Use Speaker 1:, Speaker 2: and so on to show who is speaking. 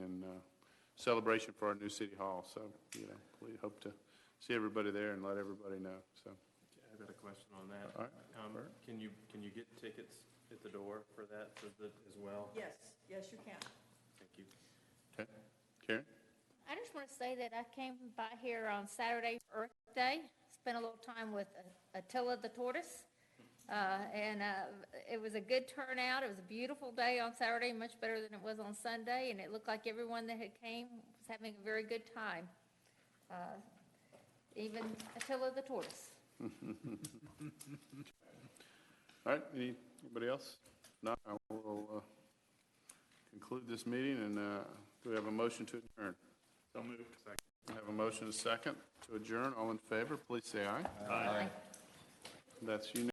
Speaker 1: uh, celebration for our new city hall, so, you know, we hope to see everybody there and let everybody know, so.
Speaker 2: I've got a question on that.
Speaker 1: All right.
Speaker 2: Um, Can you, can you get tickets at the door for that for the- as well?
Speaker 3: Yes, yes, you can.
Speaker 2: Thank you.
Speaker 1: Okay, Karen?
Speaker 4: I just want to say that I came by here on Saturday, for Earth Day, spent a little time with Attila the Tortoise, uh, and uh, it was a good turnout. It was a beautiful day on Saturday, much better than it was on Sunday, and it looked like everyone that had came was having a very good time, Uh, even Attila the Tortoise.
Speaker 1: All right, any- anybody else? No, I will uh, conclude this meeting, and uh, do we have a motion to adjourn? So moved. We have a motion, and a second, to adjourn. All in favor, please say aye. Aye. That's unanimous.